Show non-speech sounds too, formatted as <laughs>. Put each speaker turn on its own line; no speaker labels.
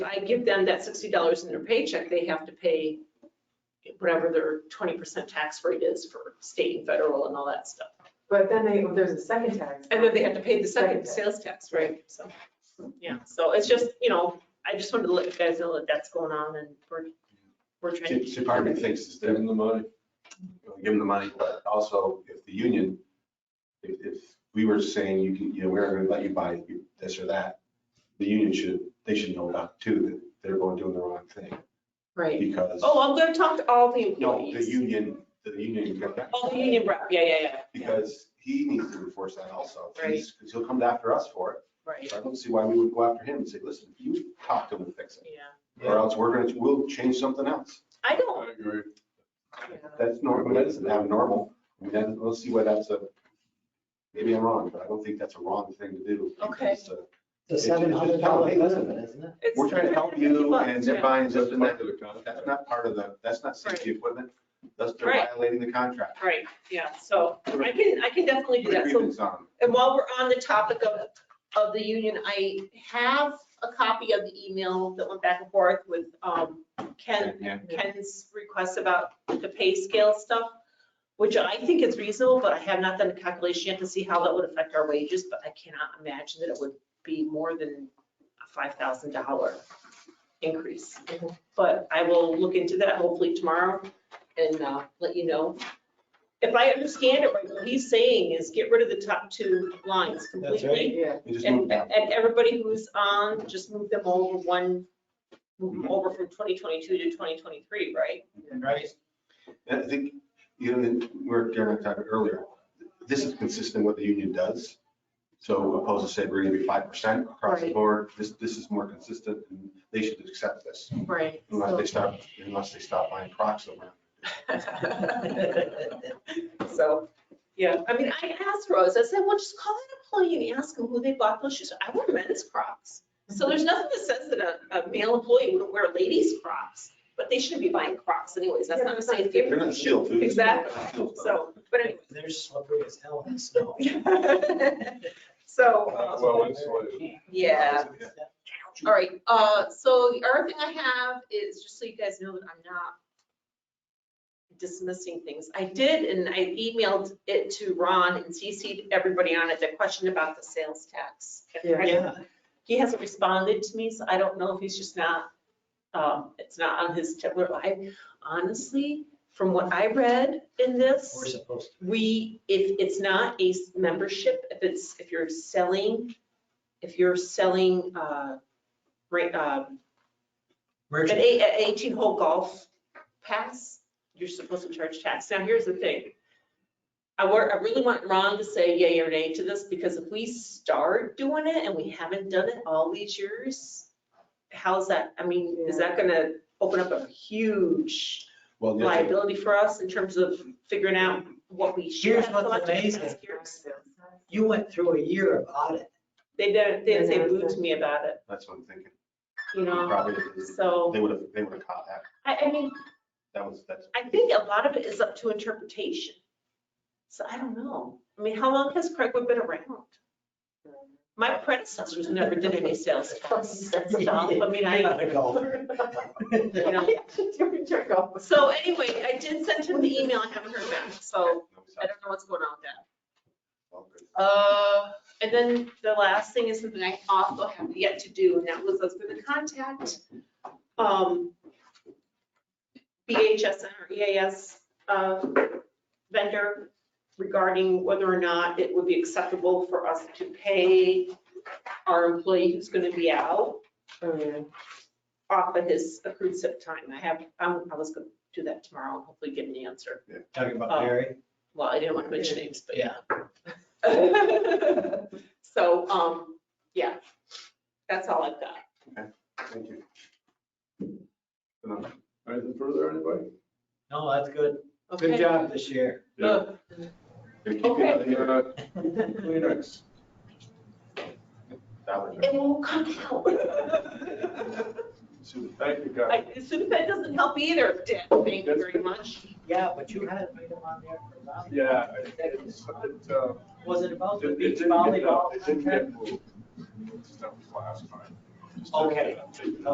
give them that sixty dollars in their paycheck, they have to pay whatever their twenty percent tax rate is for state and federal and all that stuff.
But then they, there's a second tax.
And then they have to pay the second
Second.
sales tax, right? So, yeah, so it's just, you know, I just wanted to let you guys know that that's going on and we're, we're trying to.
See, see, part of me thinks is give them the money, you know, give them the money, but also if the union, if, if we were saying you can, you know, we're gonna let you buy this or that, the union should, they should know about too, that they're going doing the wrong thing
Right.
because,
Oh, I'm gonna talk to all the
no, the
employees.
union, the union, got that,
All Oh, the union rep, yeah, yeah, yeah, yeah,
because he needs to enforce that also.
Right.
Because he'll come after us for it.
right,
So I don't see why we would go after him and say, listen, you talk to him and fix it,
yeah.
or else we're gonna, we'll change something else.
I don't,
agree.
That's normal, that isn't abnormal. I mean, that, let's see why that's a, maybe I'm wrong, but I don't think that's a wrong thing to do.
Okay.
because, uh,
It's
It's
a
just-
seven
it's
hundred
just
dollar
how it is.
benefit, isn't it?
it's.
We're trying to help you and
Yeah.
zip buying, zip
That's
and that,
part of the contract.
that's not part of the, that's not safety equipment. That's they're
Right.
violating the contract.
Right, yeah, so I can, I can definitely do that. So
Grievance on.
And while we're on the topic of, of the union, I have a copy of the email that went back and forth with um, Ken,
Yeah.
Ken's request about the pay scale stuff, which I think is reasonable, but I have not done a calculation yet to see how that would affect our wages, but I cannot imagine that it would be more than a five thousand dollar increase. But I will look into that hopefully tomorrow and uh, let you know. If I understand it right, what he's saying is get rid of the top two lines
That's right.
completely.
Yeah,
You just move
And,
down.
and everybody who's on, just move them over one, move them over from 2022 to 2023, right?
Right.
And I think, you know, and we were, Darren and I talked earlier, this is consistent with what the union does. So opposed to say we're gonna be five percent across the
Right.
board, this, this is more consistent and they should accept this.
Right.
Unless they stop, unless they stop buying Crocs somewhere.
<laughs> So, yeah, I mean, I asked Rose, I said, well, just call an employee and ask them who they bought those shoes. I wear men's Crocs. So there's nothing that says that a, a male employee wouldn't wear ladies' Crocs, but they shouldn't be buying Crocs anyways. That's not a safe.
They're not shield food.
Exactly. So, but anyway.
They're slippery as hell in the <laughs> snow.
<laughs> So, uh,
Well, insulated.
yeah, all right, uh, so the other thing I have is, just so you guys know that I'm not dismissing things, I did, and I emailed it to Ron and CC'd everybody on it, the question about the sales tax.
Yeah.
Yeah,
He hasn't responded to me, so I don't know if he's just not, um, it's not on his, tip. I, honestly, from what I read in this.
we're supposed to.
We, if it's not a s- membership, if it's, if you're selling, if you're selling, uh, right, um, an
Merchant,
eight- an eighteen hole golf pass, you're supposed to charge tax. Now, here's the thing. I were, I really want Ron to say yay or nay to this, because if we start doing it and we haven't done it all these years, how's that, I mean, is that gonna open up a huge
Well, the other thing-
liability for us in terms of figuring out what we should
Here's
have
what's
collected in
amazing.
past
<laughs>
years.
you went through a year of audit.
They didn't, they didn't say boo to me about it,
that's what I'm thinking.
you know,
Probably,
so,
they would have, they would have caught that.
I, I mean,
That was, that's.
I think a lot of it is up to interpretation. So I don't know, I mean, how long has Craigwood been around? My predecessors never did any sales tax, that's all, I mean,
<laughs> You're
I,
not a <laughs> golfer.
you know.
Check off.
So anyway, I did send him the email, I haven't heard back, so
No, it's
I
not.
don't know what's going on with that.
All good.
Uh, and then the last thing is something I also have yet to do, and that was I was gonna contact, um, BHS or EAS, uh, vendor regarding whether or not it would be acceptable for us to pay our employee who's gonna be out
Oh, yeah.
off of his accrued sick time. I have, I'm, I was gonna do that tomorrow, and hopefully get an answer.
Talking about
Oh.
Barry.
Well, I didn't want to mention names, but yeah.
Yeah.
<laughs> So, um, yeah, that's all I've got.
Thank you. Good night.
Anything further, anybody?
No, that's good. Good
Okay.
job this year. <laughs>
Ugh,
Here, keep it out of here.
Uh, Kleenex.
That one.
It won't come out. <laughs>
Soon.
Thank you, guys.
I, Sudafed doesn't help either, Dan. Thank you very much.
Yeah, but you had an item on there for volleyball.
Yeah, it- it's, it, uh,
Was it about the
it
beach
didn't get,
volleyball?
it didn't get moved. That was last time.
Okay.